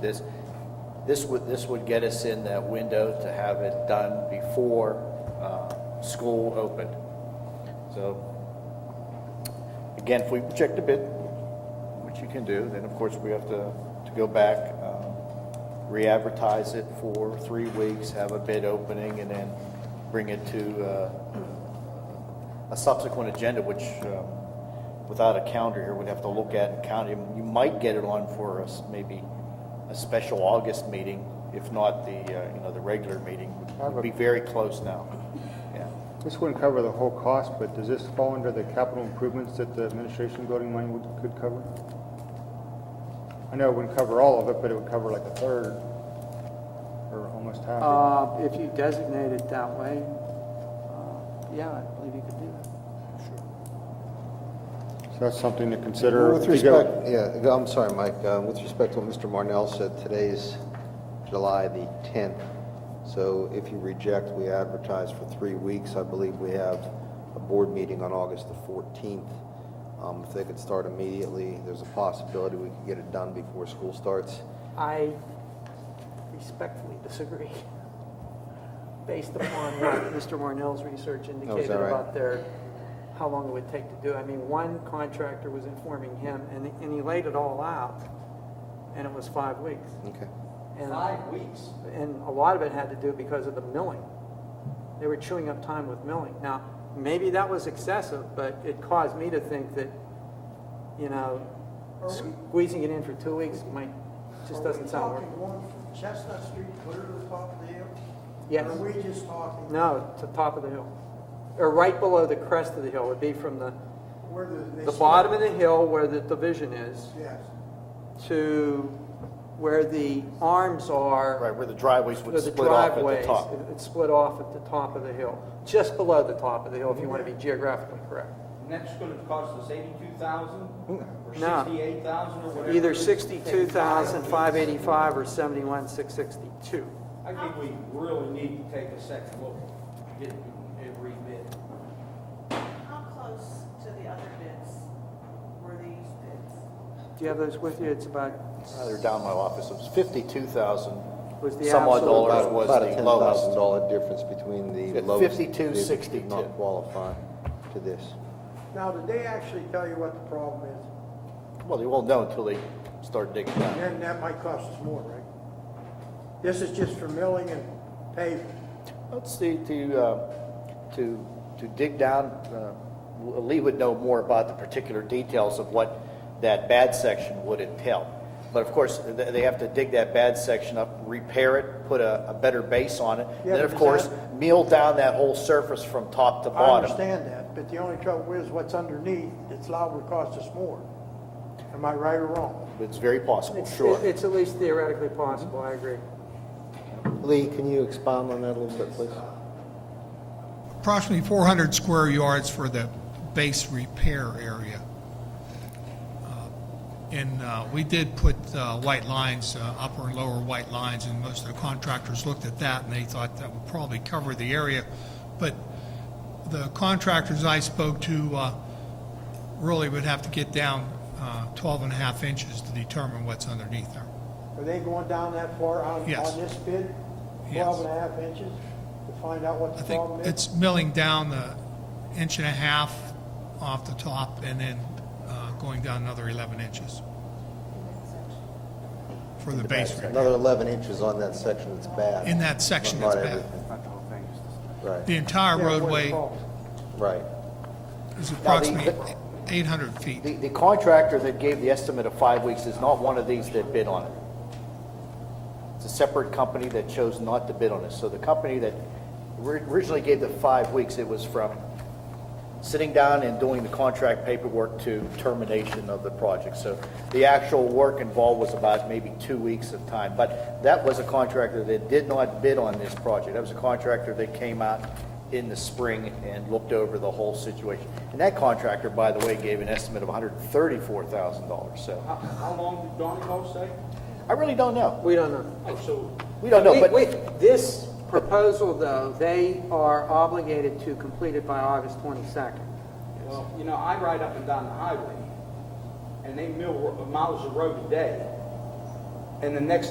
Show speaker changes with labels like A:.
A: this, this would, this would get us in that window to have it done before uh, school opened. So, again, if we reject the bid, which you can do, then of course we have to, to go back, um, re-advertise it for three weeks, have a bid opening, and then bring it to uh, a subsequent agenda, which, um, without a calendar here, we'd have to look at and count. You you might get it on for us, maybe a special August meeting, if not the, uh, you know, the regular meeting. We'd be very close now, yeah.
B: This wouldn't cover the whole cost, but does this fall under the capital improvements that the administration building money would, could cover? I know it wouldn't cover all of it, but it would cover like a third, or almost half. of
C: Uh, If you designate it that way, uh, yeah, I believe you could do that.
B: it. So that's something to consider.
D: Well, Uh, With
B: if you go-
D: respect, yeah, go- I'm sorry, Mike, Uh, with respect to what Mr. Marnell said, today's July the 10th, so if you reject, we advertise for three weeks. I believe we have a board meeting on August the 14th. Um, If they could start immediately, there's a possibility we could get it done before school starts.
E: I respectfully disagree, based upon what Mr. Marnell's research
C: Oh,
E: indicated
D: right?
E: about their, how long it would take to do. I mean, one contractor was informing him, and, and he laid it all out, and it was five weeks.
D: Okay.
E: Five weeks? And a lot of it had to do because of the milling. They were chewing up time with milling. Now, maybe that was excessive, but it caused me to think that, you know, squeezing it in for two weeks might, just doesn't sound work.
F: Are we talking going from Chestnut Street clear to the top of the hill?
E: Yes.
F: Or Are we just talking
E: No, to top of the hill, or right below the crest of the hill, would be from the,
F: where the? they
E: the
F: start?
E: bottom of the hill where the division is
F: Yes.
E: to where the arms are.
A: Right, where the driveways
E: No,
A: would
E: the
A: split off at the
E: driveways,
A: top.
E: it- it's split off at the top of the hill, just below the top of the hill, if you want to be geographically correct.
G: And that's gonna cost us eighty-two thousand, or
E: No.
G: sixty-eight thousand, or whatever.
E: Either 62,585 or 71,662.
G: I think we really need to take a second look, get it rebid.
H: How close to the other bids were these bids?
E: Do you have those with you? It's about,
A: Uh, They're down in my office, it was fifty-two thousand.
E: was the
A: Some odd
E: absolute,
A: dollar.
D: About
A: was
D: about
A: the
D: a $10,000 difference between the
A: At
D: lowest.
A: 52.62.
D: They did Not qualify to this.
F: Now, did they actually tell you what the problem is?
A: Well, they won't know until they start digging down.
F: Then that might cost us more, right? This is just for milling and paving.
A: Let's see, to, uh, to, to dig down, uh, Lee would know more about the particular details of what that bad section would entail. But of course, th- they have to dig that bad section up, repair it, put a, a better base on it.
F: Yeah,
A: Then, of
F: but
A: course,
F: that-
A: mill down that whole surface from top to
F: I
A: bottom.
F: understand that, but the only trouble is what's underneath, it's liable to cost us more. Am I right or wrong?
A: It's very possible,
E: it's
A: sure.
E: it's at least theoretically possible, I agree.
D: Lee, can you expound on that a little bit, please?
I: approximately 400 square yards for the base repair area. Uh, And uh, we did put uh, white lines, uh, upper and lower white lines, and most of the contractors looked at that and they thought that would probably cover the area. But the contractors I spoke to uh, really would have to get down uh, 12 and a half inches to determine what's underneath there.
F: Are they going down that far on, on
I: Yes.
F: this bid?
I: Yes.
F: Twelve and a half inches to find out what
I: I
F: the
I: think
F: problem is?
I: it's milling down the inch and a half off the top and then uh, going down another 11 inches for the base repair.
D: Another 11 inches on that section that's bad.
I: In that section
D: Not-
I: that's
D: not
I: bad.
D: everything. Right,
I: The entire
F: Yeah, where it
I: roadway
F: falls.
D: right.
I: is
A: the-
I: approximately 800 feet.
A: The, the contractor that gave the estimate of five weeks is not one of these that bid on it. It's a separate company that chose not to bid on it. So the company that ri- originally gave the five weeks, it was from sitting down and doing the contract paperwork to termination of the project. So the actual work involved was about maybe two weeks of time. But that was a contractor that did not bid on this project. That was a contractor that came out in the spring and looked over the whole situation. And that contractor, by the way, gave an estimate of $134,000. So
G: How, how long did Donegal say?
A: I really don't know.
E: We don't know.
G: Oh, so
A: We don't know,
E: We-
A: but.
E: we- This proposal, though, they are obligated to complete it by August 22nd.
G: Well, you know, I ride up and down the highway, and they mill ro- miles of road a day, and the next